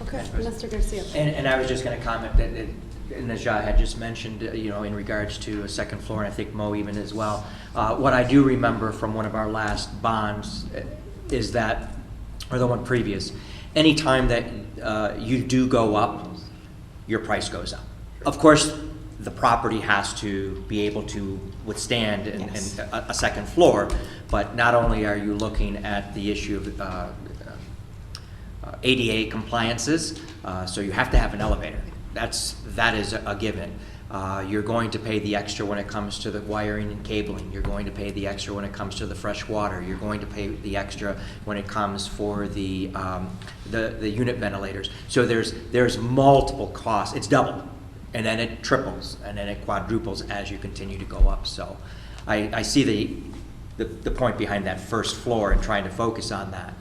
Okay, Mr. Garcia. And, and I was just gonna comment that, that- and as Najah had just mentioned, uh, you know, in regards to a second floor, and I think Mo even as well, uh, what I do remember from one of our last bonds uh, is that, or the one previous, anytime that uh, you do go up, your price goes up. Of course, the property has to be able to withstand and, Yes. and a, a second floor, but not only are you looking at the issue of, uh, uh, ADA compliances, uh, so you have to have an elevator. That's, that is a given. Uh, You're going to pay the extra when it comes to the wiring and cabling. You're going to pay the extra when it comes to the fresh water. You're going to pay the extra when it comes for the, um, the, the unit ventilators. So there's, there's multiple costs. It's double, and then it triples, and then it quadruples as you continue to go up. So I, I see the, the, the point behind that first floor and trying to focus on that.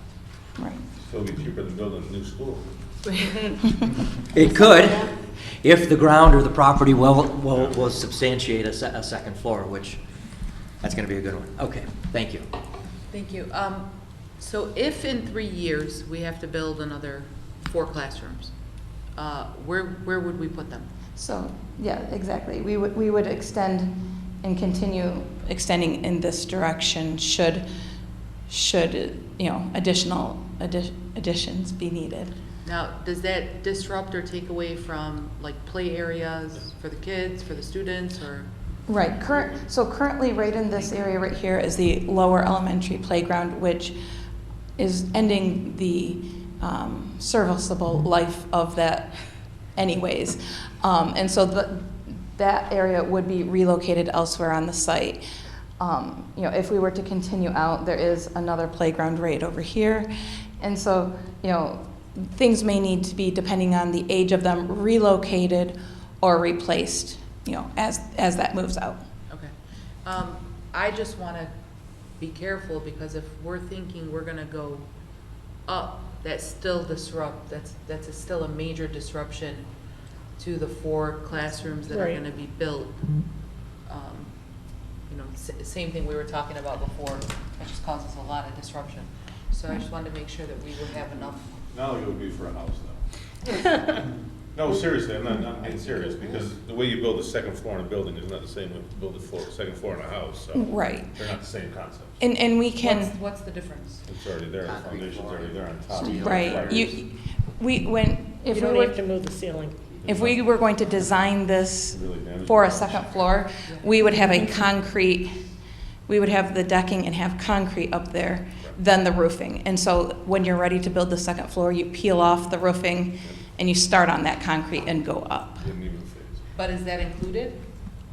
Right. So it'll be cheaper than building a new school. It could, if the ground or the property will, will, will substantiate a se- a second floor, which, that's gonna be a good one. Okay, thank you. Thank you. Um, So if in three years we have to build another four classrooms, uh, where, where would we put them? So, yeah, exactly. We would, we would extend and continue extending in this direction should, should, you know, additional addi- additions be needed. Now, does that disrupt or take away from like play areas for the kids, for the students, or? Right, current, so currently, right in this area right here is the lower elementary playground, which is ending the um, serviceable life of that anyways. Um, And so the, that area would be relocated elsewhere on the site. Um, You know, if we were to continue out, there is another playground right over here. And so, you know, things may need to be, depending on the age of them, relocated or replaced, you know, as, as that moves out. Okay. Um, I just want to be careful because if we're thinking we're going to go up, that's still disrupt, that's, that's a- still a major disruption to the four classrooms that are Right. going to be built. Um, You know, s- same thing we were talking about before, that just causes a lot of disruption. So I just wanted to make sure that we would have enough. Now it would be for a house though. No, seriously, I'm not, I'm being serious, because the way you build a second floor in a building is not the same way you build a floor, second floor in a house, so Right. they're not the same concepts. And, and we What's- can, What's the difference? It's already there, the foundation's already there on top. right, Wires. you, we, when, You if we don't have to were, move the ceiling. if we were going to design this Really damaged for a the house. second floor, we would have a concrete, we would have the decking and have concrete up there, then the roofing. And so when you're ready to build the second floor, you peel off the roofing and you start on that concrete and go up. Didn't even phase. But is that included,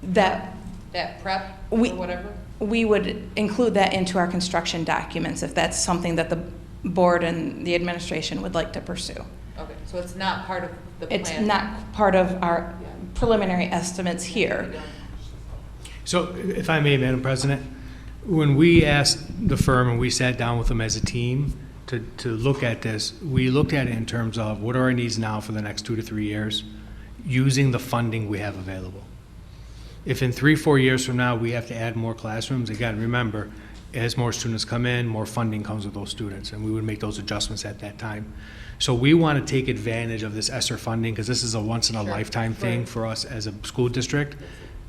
That, that prep or We- whatever? we would include that into our construction documents if that's something that the board and the administration would like to pursue. Okay, so it's not part of the plan? It's not part of our preliminary estimates here. So if I may, Madam President, when we asked the firm and we sat down with them as a team to, to look at this, we looked at it in terms of what are our needs now for the next two to three years, using the funding we have available. If in three, four years from now, we have to add more classrooms, again, remember, as more students come in, more funding comes with those students, and we would make those adjustments at that time. So we want to take advantage of this ESSER funding, because this is a once-in-a-lifetime thing for us as a school district.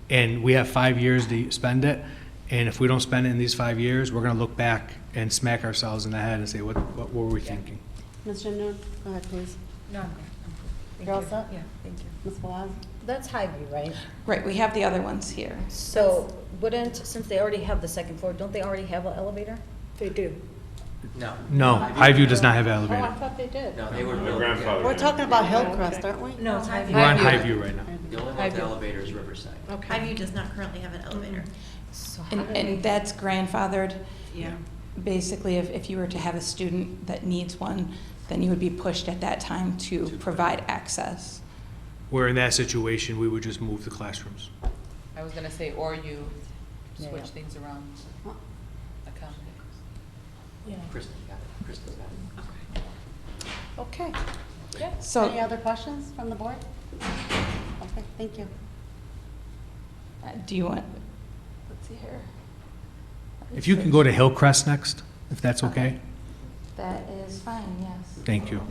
And we have five years to spend it, and if we don't spend it in these five years, we're going to look back and smack ourselves in the head and say, what, what were we thinking? Ms. Jimno, go ahead, please. No, I'm good. You're all set? Yeah, thank you. Ms. Blige? That's Highview, right? Right, we have the other ones here. So wouldn't, since they already have the second floor, don't they already have an elevator? They do. No. No, Highview does not have elevator. thought they did. No, they were. My built- grandfather- yeah. We're talking about Hillcrest, aren't we? No, it's Highview. We're on Highview. Highview right now. The only one with the elevator is Riverside. Okay. Highview does not currently have an elevator. So how And, do we- and that's grandfathered. Yeah. Basically, if, if you were to have a student that needs one, then you would be pushed at that time to provide access. Where in that situation, we would just move the classrooms. I was gonna say, or you Yeah, switch yeah. things around, accommodate. Kristen got it, Kristen got it. Okay. So. Any other questions from the board? Okay, thank you. Uh, Do you want, let's see here. If you can go to Hillcrest next, if that's okay. That is fine, yes. Thank you.